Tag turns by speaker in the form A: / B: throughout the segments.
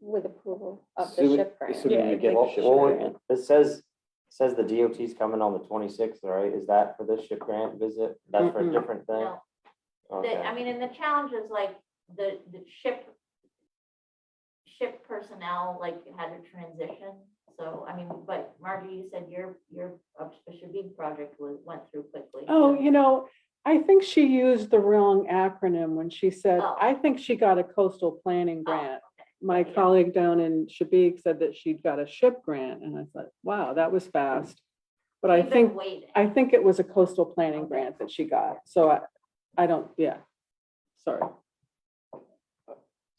A: with approval of the
B: Assuming-
A: ship grant.
B: assuming
C: Yeah,
B: we
C: I'd
B: get
C: like
B: the
C: to
B: ship
C: share
B: grant.
C: it.
D: It says, says the DOT's coming on the twenty-sixth, right? Is that for this ship grant visit? That's for a
C: Mm-mm.
D: different thing?
E: No, the, I
D: Okay,
E: mean, and the challenge is like the, the ship. Ship personnel like had to transition, so I mean, but Margie, you said your, your Shabig project was, went through quickly.
C: Oh,
E: so-
C: you know, I think she used the wrong acronym when she said,
E: Oh.
C: I think she got a coastal planning
E: Oh,
C: grant. My
E: Yeah.
C: colleague down in Shabik said that she'd got a ship grant, and I thought, wow, that was fast. But I
E: You've been
C: think,
E: waiting.
C: I think it was a coastal planning
E: Okay.
C: grant that she got, so I, I don't, yeah, sorry.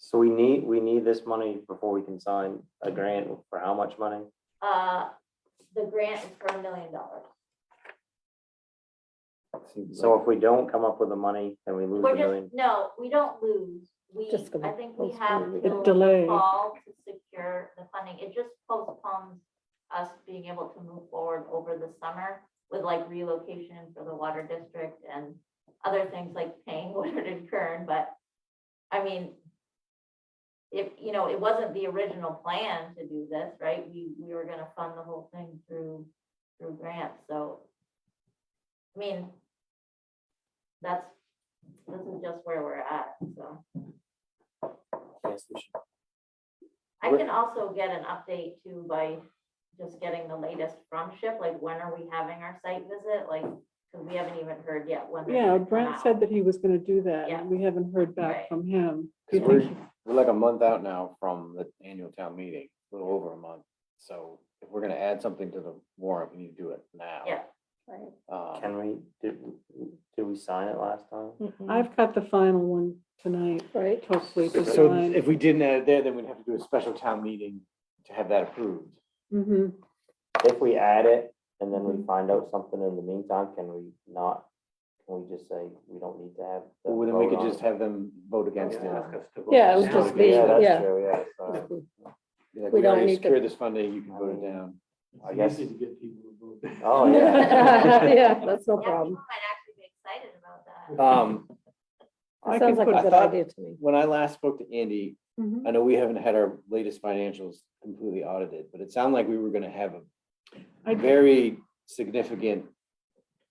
D: so we need, we need this money before we can sign a grant for how much money?
E: Uh, the grant is for a million dollars.
B: Seems
D: So
B: like-
D: if we don't come up with the money, then we lose
E: We're
D: the
E: just,
D: million.
E: no, we don't lose. We,
A: Just go
E: I
A: back.
E: think we
A: Let's
E: have
A: go. It
E: till the
C: delayed.
E: fall to secure the funding. It just postpones us being able to move forward over the summer with like relocation for the water district and other things like paying Woodard and Kern, but I mean, if, you know, it wasn't the original plan to do this, right? We, we were gonna fund the whole thing through, through grants, so. I mean, that's, this is just where we're at, so.
D: Yes, we should.
E: I
D: Right.
E: can also get an update too by just getting the latest from SHIP, like when are we having our site visit, like, because we haven't even heard yet when. they're
C: Yeah,
E: gonna come
C: Brent
E: out.
C: said that he was gonna do that,
E: Yeah.
C: and we haven't heard
E: Right.
C: back from him. Do
B: 'cause
C: you
B: We're
C: think-
B: we're like a month out now from the annual town meeting, a little over a month. So if we're gonna add something to the warrant, we need to do it now.
E: Yeah.
A: Right.
B: Um,
D: Can we, did, did we sign it last time?
E: Mm-hmm.
A: Mhm.
C: I've got the final one tonight,
A: Right,
C: hopefully. to
B: So
C: sign.
B: if we didn't add it there, then we'd have to do a special town meeting to have that approved.
C: Mhm.
D: If we add it and then
B: Mm-hmm.
D: we find out something in the meantime, can we not, can we just say we don't need to have? the
B: Well, then we
D: vote
B: could
D: on
B: just have them vote against it.
A: Yeah, it was
D: it?
A: just be-
D: Yeah,
A: yeah.
D: that's true, yeah, sorry.
B: Be like,
A: We
B: We
A: don't
B: already
A: need to-
B: secured this funding, you can vote it down.
D: I
F: It's
D: guess-
F: easy to get people to vote.
D: Oh, yeah.
A: Yeah, that's no
E: Yeah, people
A: problem.
E: might actually be excited about that.
B: Um,
C: I
A: That sounds
C: can
A: like
C: put-
B: I
A: a good
B: thought-
A: idea to me.
B: when I last spoke to Andy,
C: Mhm.
B: I know we haven't had our latest financials completely audited, but it sounded like we were gonna have
C: I
B: a
C: did-
B: very significant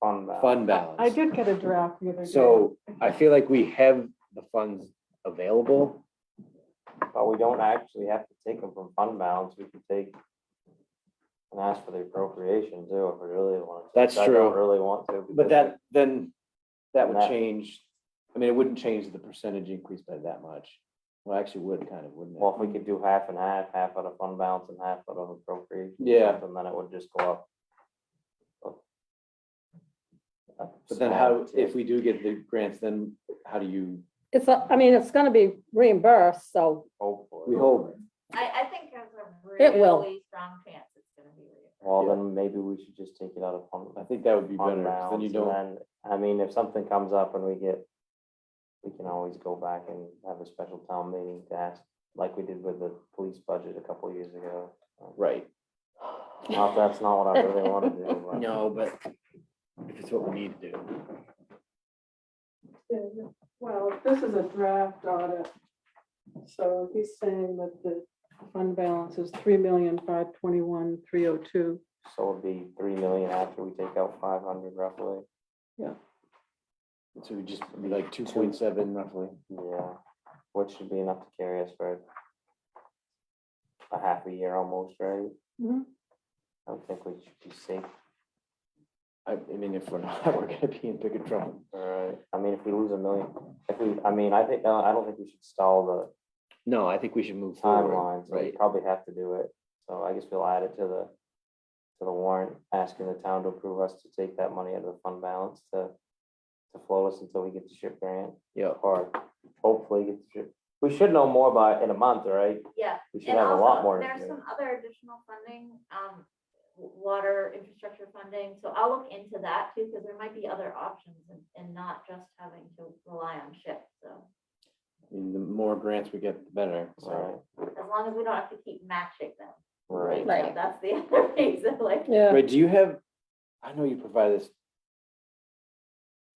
D: Fun map.
B: fund
C: I
B: balance.
C: did get a draft the other day.
B: So I feel like we have the funds available.
D: But we don't actually have to take them from fund balance, we can take and ask for the appropriation too, if we really want to.
B: That's
D: I don't
B: true.
D: Really want to. because
B: But that, then, that would
D: That-
B: change, I mean, it wouldn't change the percentage increase by that much. Well, actually would kind of, wouldn't it?
D: Well, if we could do half and half, half out of fund balance and half out of appropriation. or
B: Yeah.
D: something, Then it would just go up.
B: But then how, if we do get the grants, then how do you,
A: It's, a- I mean, it's gonna be reimbursed, so
B: we
D: Hopefully.
B: hold,
E: I, I think there's a
A: It will.
E: really strong chance it's gonna be real.
D: Well,
B: Yeah.
D: then maybe we should just take it out of fund.
B: I think that would be better,
D: fund
B: 'cause then you
D: balance,
B: don't,
D: and then, I mean, if something comes up and we get, we can always go back and have a special town meeting to ask, like we did with the police budget a couple years ago.
B: right.
D: Not, if that's not what I really wanna do, but.
B: No, but if it's what we need to do.
C: Well, this is a draft audit. So he's saying that the fund balance is three million, five twenty-one, three oh two.
D: So it'd be three million after we take out five hundred roughly,
B: So we just, be like two point seven roughly.
D: yeah, which should be enough to carry us for a half a year almost, right? I don't think we should be safe,
B: I, I mean, if we're not, we're gonna be in bigger trouble.
D: alright, I mean, if we lose a million, if we, I mean, I think, I don't think we should stall the
B: No, I think we should move
D: timeline, so we
B: Right.
D: probably have to do it. So I guess we'll add it to the, to the warrant, asking the town to approve us to take that money out of the fund balance to, to float us until we get the ship grant,
B: Yeah.
D: or hopefully get the ship. We should know more by, in a month, right?
E: Yeah,
D: We should
E: and
D: have a lot
E: also,
D: more.
E: there's
D: information.
E: some other additional funding, um, w- water infrastructure funding, so I'll look into that too, because there might be other options and, and not just having to rely on SHIP, so.
B: I mean, the more grants we get, the better,
D: Right,
B: so.
E: As long as we don't have to keep matching them.
D: right.
E: you know,
A: Right.
E: That's the other reason, like,
A: Yeah,
B: Right, do you have, I know you provide this.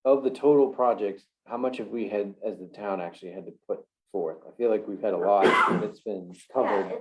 B: Of the total projects, how much have we had, as the town actually had to put forth? I feel like we've had a lot that's been
E: yeah,
B: covered.